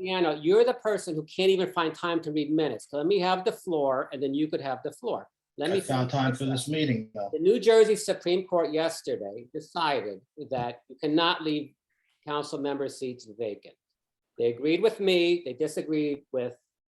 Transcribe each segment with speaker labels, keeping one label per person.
Speaker 1: Deanna, you're the person who can't even find time to read minutes. So Let me have the floor and then you could have the floor. Let
Speaker 2: I
Speaker 1: me.
Speaker 2: found time for this meeting, though.
Speaker 1: The New Jersey Supreme Court yesterday decided that you cannot leave council member seats vacant. They agreed with me, they disagreed with,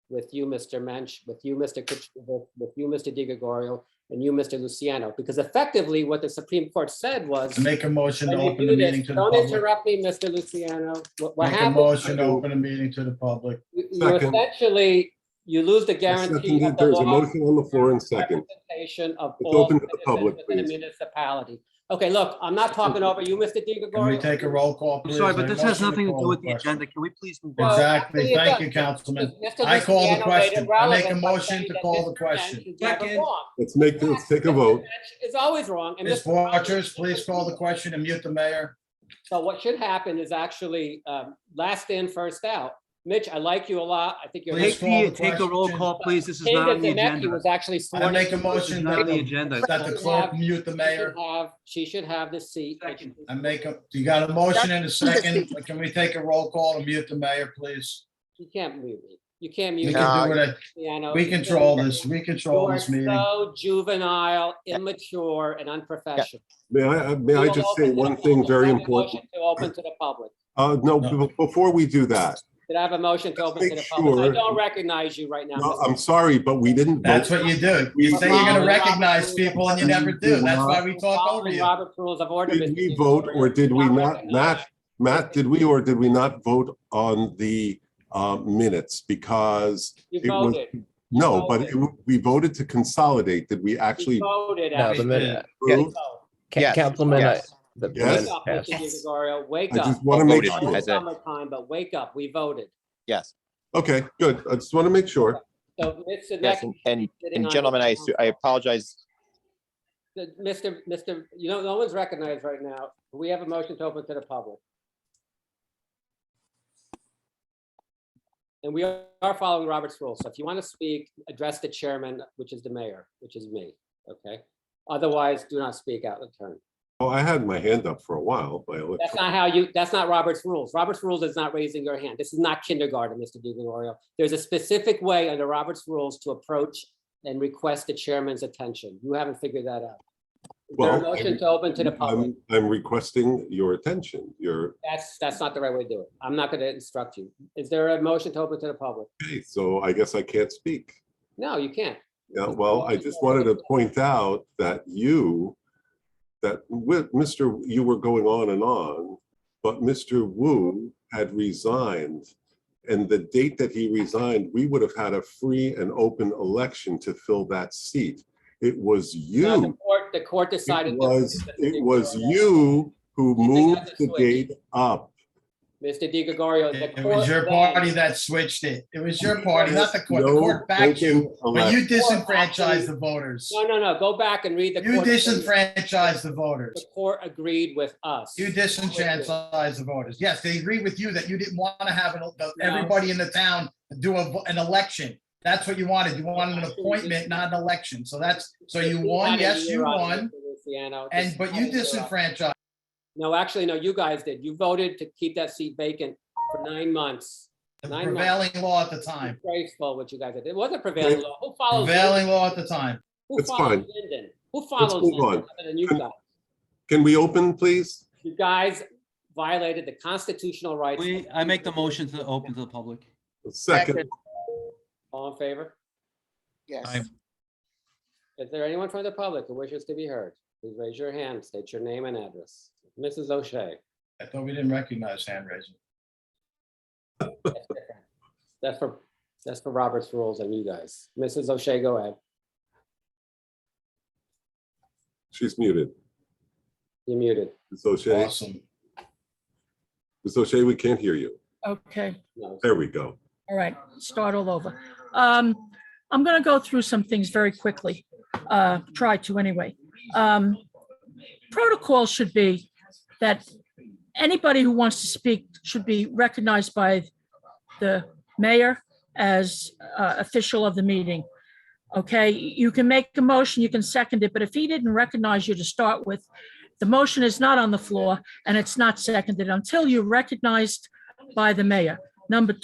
Speaker 1: with you, Mr. Mensch, with you, Mr. Kitchen, with you, Mr. Di Gregorio, and you, Mr. Luciano, because effectively what the Supreme Court said was.
Speaker 2: To Make a motion to
Speaker 1: when you
Speaker 2: open
Speaker 1: do
Speaker 2: the
Speaker 1: this,
Speaker 2: meeting to the
Speaker 1: Don't
Speaker 2: public.
Speaker 1: interrupt me, Mr. Luciano. What what
Speaker 2: Make a motion to
Speaker 1: happens,
Speaker 2: open a meeting to the public.
Speaker 1: you you
Speaker 3: Second.
Speaker 1: essentially, you lose the
Speaker 3: Second,
Speaker 1: guarantee of the
Speaker 3: There's a
Speaker 1: law
Speaker 3: motion on the floor in second.
Speaker 1: representation of
Speaker 3: It's
Speaker 1: all
Speaker 3: open to the public,
Speaker 1: citizens within a
Speaker 3: please.
Speaker 1: municipality. Okay, look, I'm not talking over you, Mr. Di
Speaker 2: Can we take a roll call,
Speaker 4: I'm
Speaker 2: please?
Speaker 4: sorry,
Speaker 2: I
Speaker 4: but this has
Speaker 2: motion
Speaker 4: nothing to
Speaker 2: call
Speaker 4: do
Speaker 2: the
Speaker 4: with the
Speaker 2: question.
Speaker 4: agenda. Can we please move on?
Speaker 1: Well,
Speaker 2: Exactly.
Speaker 1: actually, it
Speaker 2: Thank
Speaker 1: does.
Speaker 2: you, Councilman.
Speaker 1: Mr.
Speaker 2: I call the
Speaker 1: Luciano made
Speaker 2: question. I
Speaker 1: irrelevant
Speaker 2: make a
Speaker 1: by
Speaker 2: motion
Speaker 1: saying
Speaker 2: to
Speaker 1: that
Speaker 2: call the
Speaker 1: Mr.
Speaker 2: question.
Speaker 1: Mensch is never
Speaker 5: Second.
Speaker 1: wrong.
Speaker 3: Let's make, let's take a
Speaker 1: Mr.
Speaker 3: vote.
Speaker 1: Mensch is always wrong. and
Speaker 2: Ms.
Speaker 1: Mr. Rogers-
Speaker 2: Waters, please call the question and mute the mayor.
Speaker 1: So what should happen is actually um, last in, first out. Mitch, I like you a lot. I think you're.
Speaker 2: Please
Speaker 4: Take
Speaker 2: call
Speaker 4: the,
Speaker 2: the
Speaker 4: take the roll
Speaker 2: question.
Speaker 4: call, please. This is not on
Speaker 1: Kinga
Speaker 4: the
Speaker 1: Zemecki
Speaker 4: agenda.
Speaker 1: was actually
Speaker 2: I
Speaker 1: sworn.
Speaker 2: make a
Speaker 1: in.
Speaker 4: This is
Speaker 2: motion
Speaker 4: not
Speaker 2: that
Speaker 4: on the
Speaker 2: the,
Speaker 4: agenda.
Speaker 2: that the clerk mute the
Speaker 1: She should
Speaker 2: mayor.
Speaker 1: have, she should have the seat. that she-
Speaker 4: Second.
Speaker 2: I make a, you got a motion and a second. Can we take a roll call to mute the mayor, please?
Speaker 1: You can't mute me. You can't
Speaker 2: We
Speaker 1: mute.
Speaker 2: can do it.
Speaker 1: Luciano.
Speaker 2: We
Speaker 1: You can't
Speaker 2: control
Speaker 1: mute me.
Speaker 2: this. We
Speaker 1: You
Speaker 2: control
Speaker 1: are
Speaker 2: this meeting.
Speaker 1: so juvenile, immature, and unprofessional.
Speaker 3: May I, uh, may I
Speaker 1: We'll
Speaker 3: just
Speaker 1: open
Speaker 3: say
Speaker 1: to the
Speaker 3: one thing
Speaker 1: public.
Speaker 3: very
Speaker 1: I have a
Speaker 3: important?
Speaker 1: motion To open to the public.
Speaker 3: Uh, no,
Speaker 2: No.
Speaker 3: be- before we do that,
Speaker 1: Did I have a motion to open to the
Speaker 3: Make
Speaker 1: public? I
Speaker 3: sure-
Speaker 1: don't recognize you right now.
Speaker 3: no,
Speaker 1: Mr.
Speaker 3: I'm sorry, but we didn't
Speaker 2: That's
Speaker 3: vote.
Speaker 2: what you do. You say you're gonna recognize people and you never do. That's why we talk over
Speaker 1: Following
Speaker 2: you.
Speaker 1: Robert rules of order.
Speaker 3: Did
Speaker 1: Mr.
Speaker 3: we
Speaker 1: Di
Speaker 3: vote
Speaker 1: Gregorio.
Speaker 3: or did we not?
Speaker 1: recognized.
Speaker 3: Matt, Matt, did we or did we not vote on the uh, minutes? Because
Speaker 1: You
Speaker 3: it was,
Speaker 1: voted.
Speaker 3: no, but it- we voted to consolidate. Did we actually
Speaker 1: You voted.
Speaker 6: No,
Speaker 1: Abby.
Speaker 6: the minute,
Speaker 1: You
Speaker 3: approve?
Speaker 1: voted.
Speaker 6: Ca-
Speaker 7: Yes.
Speaker 6: Councilman, uh,
Speaker 7: Yes.
Speaker 6: the the
Speaker 3: Yes.
Speaker 1: Wake
Speaker 6: minutes
Speaker 1: up, Mr.
Speaker 6: passed.
Speaker 1: Di Gregorio, wake
Speaker 3: I
Speaker 1: up.
Speaker 3: just want to make
Speaker 7: Voted on
Speaker 3: sure.
Speaker 7: it.
Speaker 1: It's summertime, but wake up, we voted.
Speaker 7: Yes,
Speaker 3: Okay, good. I just want to make sure.
Speaker 1: So, Mr.
Speaker 7: yes,
Speaker 1: Neck,
Speaker 7: and- and, and gentlemen, I, su- I apologize.
Speaker 1: Mr. Mr., you know, no one's recognized right now. We have a motion to open to the public. And we are following Robert's rules. So if you want to speak, address the chairman, which is the mayor, which is me, okay? Otherwise, do not speak out of turn.
Speaker 3: Oh, I had my hand up for a while. but I-
Speaker 1: That's not how you, that's not Robert's rules. Robert's rules is not raising your hand. This is not kindergarten, Mr. DiGregorio. There's a specific way under Robert's rules to approach and request the chairman's attention. You haven't figured that out. Is there a
Speaker 3: Well,
Speaker 1: motion to open to the public?
Speaker 3: I'm- I'm requesting your attention. Your,
Speaker 1: That's, that's not the right way to do it. I'm not gonna instruct you. Is there a motion to open to the public?
Speaker 3: okay, so I guess I can't speak.
Speaker 1: No, you can't.
Speaker 3: Yeah, well, I just wanted to point out that you, that with Mr., you were going on and on, but Mr. Wu had resigned. And the date that he resigned, we would have had a free and open election to fill that seat. It was
Speaker 1: No, The
Speaker 3: you.
Speaker 1: court, the court
Speaker 3: It
Speaker 1: decided. that-
Speaker 3: was,
Speaker 1: Mr.
Speaker 3: it was
Speaker 1: DiGregorio.
Speaker 3: you who moved the date up.
Speaker 1: Mr. DiGregorio, the
Speaker 2: It
Speaker 1: court.
Speaker 2: was your
Speaker 1: then-
Speaker 2: party that switched it. It was your party, not the court. The
Speaker 3: No
Speaker 2: court backed you,
Speaker 3: open
Speaker 2: but you
Speaker 3: election.
Speaker 2: disenfranchised the voters.
Speaker 1: No, no, no, go back and read the.
Speaker 2: You
Speaker 1: court opinion.
Speaker 2: disenfranchised the
Speaker 1: The
Speaker 2: voters.
Speaker 1: court agreed with us.
Speaker 2: You disenfranchised the voters. Yes, they agreed with you that you didn't want to have an- that everybody in the town do a, an election. That's what you wanted. You wanted an appointment, not an election. So that's, so you won, yes, you won.
Speaker 1: Luciano.
Speaker 2: And, but you
Speaker 1: This is-
Speaker 2: disenfranchised.
Speaker 1: No, actually, no, you guys did. You voted to keep that seat vacant for nine months.
Speaker 2: The
Speaker 1: Nine
Speaker 2: prevailing law at the time.
Speaker 1: Graceful what you guys did. It was a prevailing law. Who follows?
Speaker 2: Prevailing law at the time.
Speaker 1: Who
Speaker 3: It's
Speaker 1: follows
Speaker 3: fine.
Speaker 1: Linden? Who follows
Speaker 3: move
Speaker 1: Linden
Speaker 3: on.
Speaker 1: other than you guys?
Speaker 3: Can we open, please?
Speaker 1: You guys violated the constitutional rights. of
Speaker 4: We, I make the motion to open to the public.
Speaker 3: Second,
Speaker 1: All in favor?
Speaker 2: Aye.
Speaker 5: Yes.
Speaker 1: Is there anyone from the public who wishes to be heard? Please raise your hand, state your name and address. Mrs. O'Shea.
Speaker 2: I thought we didn't recognize hand raising.
Speaker 1: That's different. That's for, that's for Robert's rules and you guys. Mrs. O'Shea, go ahead.
Speaker 3: she's muted.
Speaker 1: You're muted.
Speaker 3: Ms. O'Shea,
Speaker 2: Awesome.
Speaker 3: Ms. O'Shea, we can't hear you.
Speaker 8: Okay,
Speaker 1: No.
Speaker 3: There we go.
Speaker 8: all right, start all over. Um, I'm gonna go through some things very quickly, uh, try to anyway. Um, protocol should be that anybody who wants to speak should be recognized by the mayor as uh, official of the meeting. Okay, you can make a motion, you can second it, but if he didn't recognize you to start with, the motion is not on the floor and it's not seconded until you're recognized by the mayor. Number two.